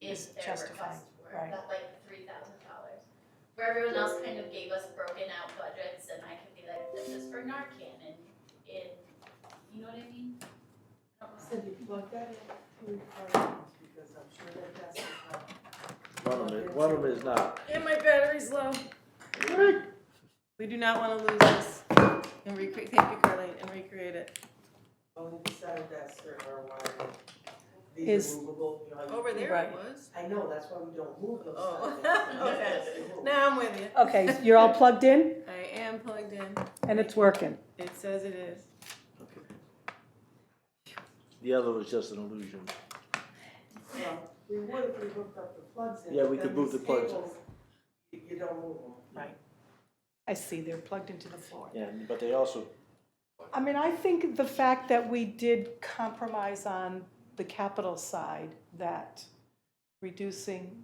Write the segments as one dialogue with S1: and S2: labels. S1: is their
S2: Justified,
S1: request were,
S2: right.
S1: that like three thousand dollars. Where everyone else kind of gave us broken out budgets and I could be like, this is for Narcan and in, you know what I mean? I don't know.
S3: So you plug that in to your phones, because I'm sure that that's not.
S4: One of them, is- one of them is not.
S5: And my battery's low. We do not want to lose this and recreate. Thank you, Carlene, and recreate it.
S3: Only beside that server wire.
S2: Is-
S3: These are movable, you know. you-
S5: Over there
S2: Right.
S5: it was.
S3: I know, that's why we don't move those.
S5: Oh.
S3: signs.
S5: Okay.
S3: They move.
S5: Now I'm with you.
S2: Okay, you're all plugged in
S5: I am plugged in.
S2: and it's working.
S5: It says it is.
S4: The other was just an illusion.
S3: Well, We would if we hooked up the plugs in.
S4: Yeah, we
S3: but
S4: could
S3: then
S4: move the
S3: these
S4: plugs in.
S3: cables, You you don't move them.
S2: I see, they're plugged into the floor.
S4: Yeah, but they also,
S2: I mean, I think the fact that we did compromise on the capital side, that reducing,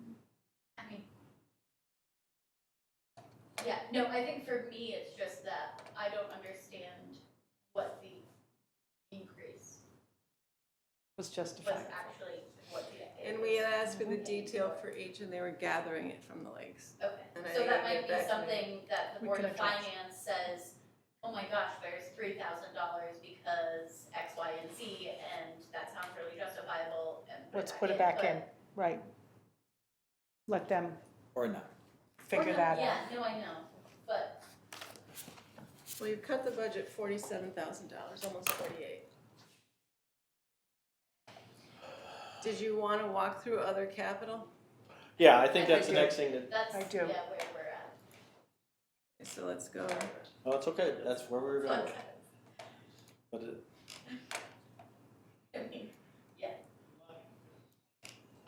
S1: I mean. Yeah, no, I think for me, it's just that I don't understand what the increase
S2: was
S1: was
S2: justified.
S1: actually, what the.
S5: And we had asked for the detail for each, and they were gathering it from the lakes.
S1: Okay,
S5: And I
S1: so that might
S5: get back
S1: be
S5: to
S1: something that the
S2: We
S1: board
S2: can
S1: of
S2: adjust.
S1: finance says, oh my gosh, there's three thousand dollars because X, Y, and Z, and that sounds really justifiable, and
S2: Let's put it back in, right. Let them
S4: or not.
S1: but- or
S2: figure
S1: no,
S2: that out.
S1: Yeah, no, I know, but,
S5: Well, you've cut the budget forty-seven thousand dollars, almost forty-eight. Did you want to walk through other capital?
S4: Yeah, I think
S1: I
S4: that's the
S1: do.
S4: next thing that,
S1: that's,
S2: I
S1: yeah,
S2: do.
S1: where we're at.
S5: So let's go.
S4: oh, it's okay, that's where we were going. But it-
S1: I mean, yeah.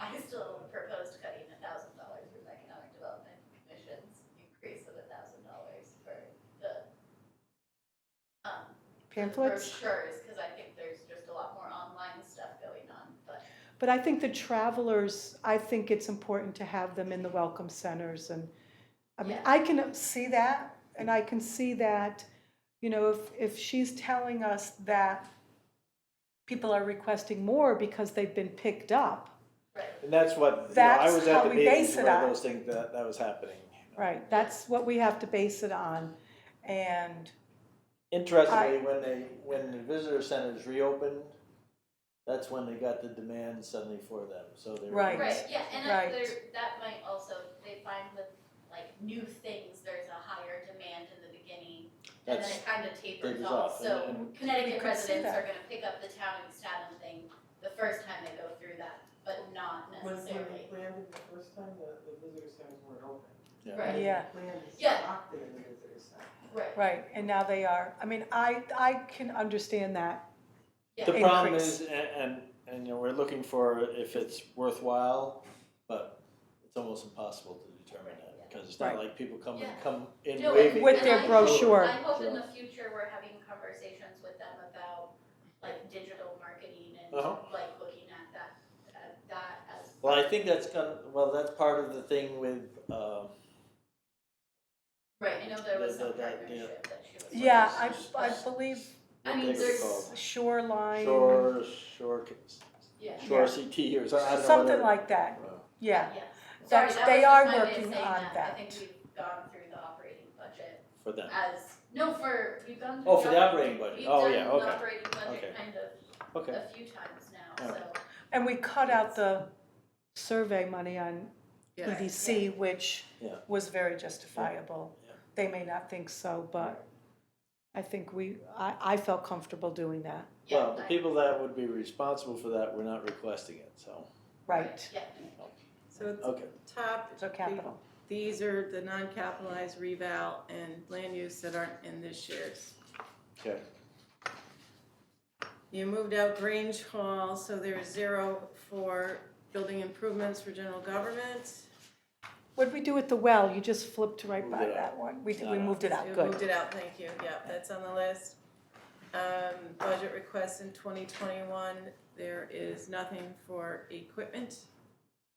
S1: I still proposed cutting a thousand dollars from economic development commissions, increase of a thousand dollars for the, um, for the
S2: Pamphlets?
S1: Brochures, cause I think there's just a lot more online stuff going on, but
S2: But I think the travelers, I think it's important to have them in the welcome centers and, I mean,
S1: Yeah.
S2: I can see that and I can see that, you know, if, if she's telling us that people are requesting more because they've been picked up,
S1: right,
S4: And that's what, you know, I
S2: That's
S4: was
S2: how
S4: at the
S2: we
S4: meetings
S2: base it
S4: where
S2: on.
S4: those things, that, that was happening.
S2: right, that's what we have to base it on. And,
S4: Interestingly, when they, when the visitor centers reopened, that's when they got the demand suddenly for them, so they were.
S2: Right.
S1: right, yeah, and I,
S2: Right.
S1: there, that might also, they find with like new things, there's a higher demand in the beginning, and then
S4: That's-
S1: it kinda tapers
S4: Tapers
S1: off,
S4: off,
S1: so.
S4: and- and
S2: You
S1: Connecticut
S2: could see
S1: residents
S2: that.
S1: are gonna pick up the town and Statham thing the first time they go through that, but not
S3: When, when we
S1: necessarily.
S3: planned it the first time, the, the visitor centers weren't open.
S4: Yeah.
S1: Right.
S2: Yeah.
S3: We planned it,
S1: Yeah.
S3: locked it in the visitor center.
S1: Right,
S2: right, and now they are, I mean, I, I can understand that,
S4: The
S2: Yeah.
S4: problem
S2: Increase.
S4: is, and, and, and, you know, we're looking for if it's worthwhile, but it's almost impossible to determine that, because it's not
S2: Right.
S4: like people come,
S1: Yeah.
S4: come in
S1: No,
S4: waving.
S2: With
S1: and
S2: their
S1: I hope-
S2: brochure.
S1: I hope in the future we're having conversations with them about like digital marketing and
S4: Uh-huh.
S1: like looking at that, at that as.
S4: Well, I think that's gonna, well, that's part of the thing with, um,
S1: Right, I know there was
S4: The- the-
S1: some
S4: that,
S1: partnership that she was.
S2: yeah, I,
S1: working on,
S2: I
S1: but-
S2: believe
S1: I
S4: what
S1: mean,
S4: they were
S1: there's-
S4: called,
S2: shoreline,
S4: shore, shore,
S1: Yeah,
S4: shore CT or something, I don't know.
S2: something
S4: whatever. uh,
S2: like that, yeah.
S1: yeah, sorry,
S2: That's-
S1: that
S2: they
S1: was
S2: are
S1: just my way of
S2: working
S1: saying
S2: on
S1: that, I
S2: that.
S1: think we've gone through the operating budget
S4: For them,
S1: as, no, for, we've gone through.
S4: Oh, for the operating budget.
S1: We've
S4: Oh,
S1: done
S4: yeah,
S1: the
S4: okay.
S1: operating
S4: Okay.
S1: budget kind of
S4: okay,
S1: a few times now, so.
S4: Alright.
S2: And we cut out the survey money on
S5: Yeah.
S2: EDC, which
S4: Yeah.
S2: was very justifiable.
S4: Yeah.
S2: They may not think so, but I think we, I, I felt comfortable doing that,
S1: yeah,
S4: well, the
S1: I-
S4: people that would be responsible for that were not requesting it, so,
S2: right?
S1: Yeah,
S5: So at the
S4: okay.
S5: top,
S2: So capital,
S5: these are the non-capitalized reval and land use that aren't in this year's.
S4: Okay.
S5: You moved out Grange Hall, so there is zero for building improvements for general government.
S2: what'd we do with the well? You just flipped right
S4: Moved
S2: by
S4: it out.
S2: that one. We did,
S4: No,
S2: we
S4: no.
S2: moved it out,
S5: You
S2: good.
S5: moved it out, thank you, yep, that's on the list. Um, budget requests in twenty twenty-one, there is nothing for equipment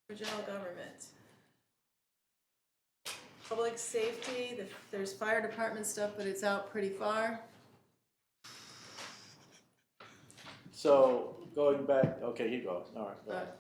S5: for general government. Public safety, the- there's fire department stuff, but it's out pretty far.
S4: So, going back, okay, you go, all right, go
S5: Uh,
S4: ahead.